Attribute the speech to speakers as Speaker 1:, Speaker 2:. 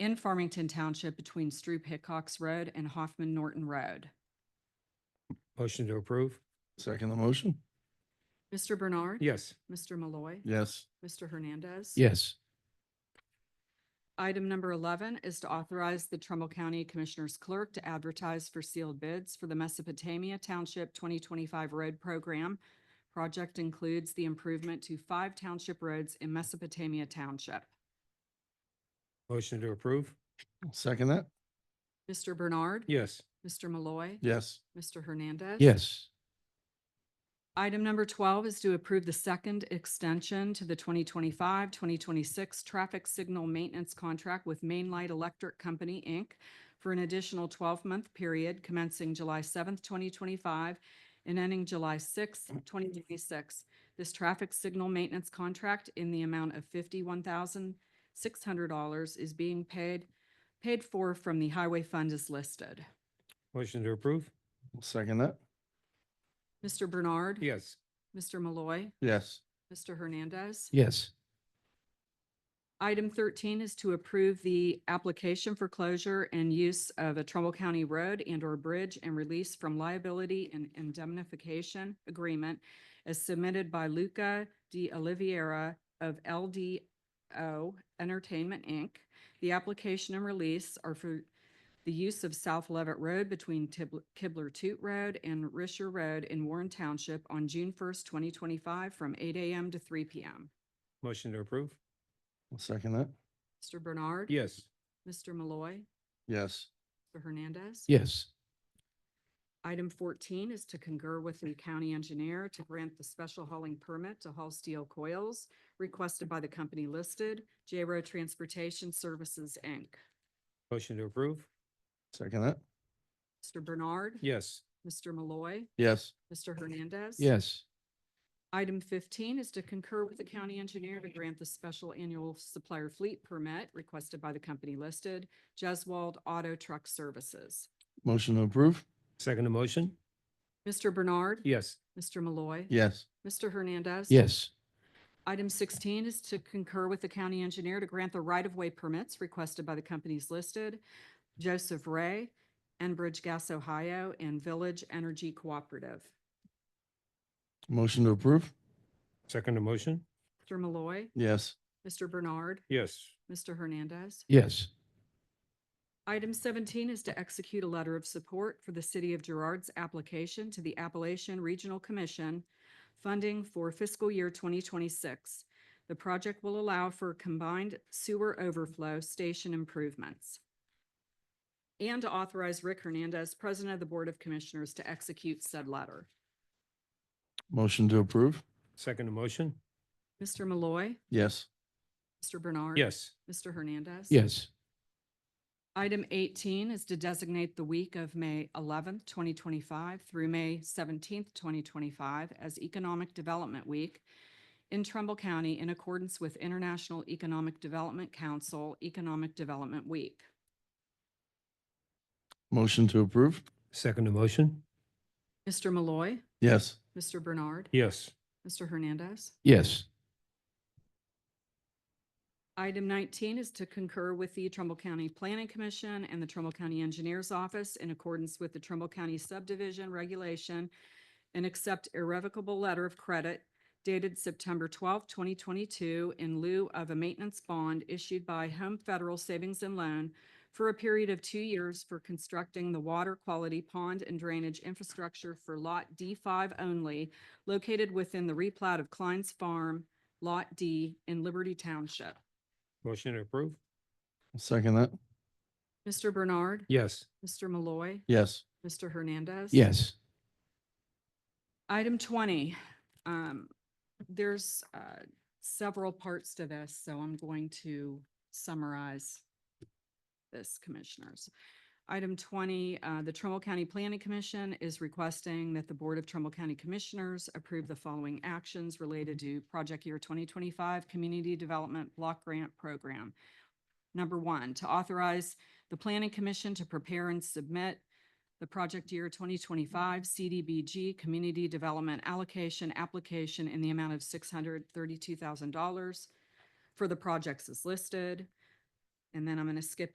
Speaker 1: in Farmington Township between Stroop Hickox Road and Hoffman Norton Road.
Speaker 2: Motion to approve?
Speaker 3: Second the motion?
Speaker 1: Mr. Bernard.
Speaker 2: Yes.
Speaker 1: Mr. Malloy.
Speaker 3: Yes.
Speaker 1: Mr. Hernandez.
Speaker 2: Yes.
Speaker 1: Item number eleven is to authorize the Trumbull County Commissioners Clerk to advertise for sealed bids for the Mesopotamia Township twenty twenty-five road program. Project includes the improvement to five township roads in Mesopotamia Township.
Speaker 2: Motion to approve?
Speaker 3: Second that?
Speaker 1: Mr. Bernard.
Speaker 2: Yes.
Speaker 1: Mr. Malloy.
Speaker 3: Yes.
Speaker 1: Mr. Hernandez.
Speaker 2: Yes.
Speaker 1: Item number twelve is to approve the second extension to the 2025-2026 traffic signal maintenance contract with Main Light Electric Company, Inc. for an additional twelve-month period commencing July seventh, twenty twenty-five and ending July sixth, twenty twenty-six. This traffic signal maintenance contract in the amount of fifty-one thousand six hundred dollars is being paid, paid for from the highway fund as listed.
Speaker 2: Motion to approve?
Speaker 3: Second that?
Speaker 1: Mr. Bernard.
Speaker 2: Yes.
Speaker 1: Mr. Malloy.
Speaker 3: Yes.
Speaker 1: Mr. Hernandez.
Speaker 2: Yes.
Speaker 1: Item thirteen is to approve the application for closure and use of a Trumbull County road and or bridge and release from liability and indemnification agreement as submitted by Luca de Oliveira of LDO Entertainment, Inc. The application and release are for the use of South Levitt Road between Tib- Kibler Toot Road and Risher Road in Warren Township on June first, twenty twenty-five, from eight AM to three PM.
Speaker 2: Motion to approve?
Speaker 3: Second that?
Speaker 1: Mr. Bernard.
Speaker 2: Yes.
Speaker 1: Mr. Malloy.
Speaker 3: Yes.
Speaker 1: Mr. Hernandez.
Speaker 2: Yes.
Speaker 1: Item fourteen is to concur with the county engineer to grant the special hauling permit to haul steel coils requested by the company listed, J Row Transportation Services, Inc.
Speaker 2: Motion to approve?
Speaker 3: Second that?
Speaker 1: Mr. Bernard.
Speaker 2: Yes.
Speaker 1: Mr. Malloy.
Speaker 3: Yes.
Speaker 1: Mr. Hernandez.
Speaker 2: Yes.
Speaker 1: Item fifteen is to concur with the county engineer to grant the special annual supplier fleet permit requested by the company listed, Jeswald Auto Truck Services.
Speaker 3: Motion to approve?
Speaker 2: Second motion?
Speaker 1: Mr. Bernard.
Speaker 2: Yes.
Speaker 1: Mr. Malloy.
Speaker 3: Yes.
Speaker 1: Mr. Hernandez.
Speaker 2: Yes.
Speaker 1: Item sixteen is to concur with the county engineer to grant the right-of-way permits requested by the companies listed, Joseph Ray, Enbridge Gas Ohio, and Village Energy Cooperative.
Speaker 3: Motion to approve?
Speaker 2: Second motion?
Speaker 1: Mr. Malloy,
Speaker 3: Yes.
Speaker 1: Mr. Bernard,
Speaker 2: Yes.
Speaker 1: Mr. Hernandez.
Speaker 2: Yes.
Speaker 1: Item seventeen is to execute a letter of support for the City of Girard's application to the Appalachian Regional Commission funding for fiscal year twenty twenty-six. The project will allow for combined sewer overflow station improvements. And to authorize Rick Hernandez, President of the Board of Commissioners, to execute said letter.
Speaker 3: Motion to approve?
Speaker 2: Second motion?
Speaker 1: Mr. Malloy,
Speaker 3: Yes.
Speaker 1: Mr. Bernard.
Speaker 2: Yes.
Speaker 1: Mr. Hernandez.
Speaker 2: Yes.
Speaker 1: Item eighteen is to designate the week of May eleventh, twenty twenty-five through May seventeenth, twenty twenty-five as Economic Development Week in Trumbull County in accordance with International Economic Development Council Economic Development Week.
Speaker 3: Motion to approve?
Speaker 2: Second motion?
Speaker 1: Mr. Malloy,
Speaker 3: Yes.
Speaker 1: Mr. Bernard,
Speaker 2: Yes.
Speaker 1: Mr. Hernandez.
Speaker 2: Yes.
Speaker 1: Item nineteen is to concur with the Trumbull County Planning Commission and the Trumbull County Engineers Office in accordance with the Trumbull County Subdivision Regulation and accept irrevocable letter of credit dated September twelfth, twenty twenty-two in lieu of a maintenance bond issued by Home Federal Savings and Loan for a period of two years for constructing the water quality pond and drainage infrastructure for Lot D five only located within the replat of Klein's Farm, Lot D in Liberty Township.
Speaker 2: Motion to approve?
Speaker 3: Second that?
Speaker 1: Mr. Bernard.
Speaker 2: Yes.
Speaker 1: Mr. Malloy.
Speaker 3: Yes.
Speaker 1: Mr. Hernandez.
Speaker 2: Yes.
Speaker 1: Item twenty, um, there's, uh, several parts to this, so I'm going to summarize this, commissioners. Item twenty, uh, the Trumbull County Planning Commission is requesting that the Board of Trumbull County Commissioners approve the following actions related to Project Year twenty twenty-five Community Development Block Grant Program. Number one, to authorize the Planning Commission to prepare and submit the project year twenty twenty-five CDBG Community Development Allocation Application in the amount of six hundred thirty-two thousand dollars for the projects as listed. And then I'm going to skip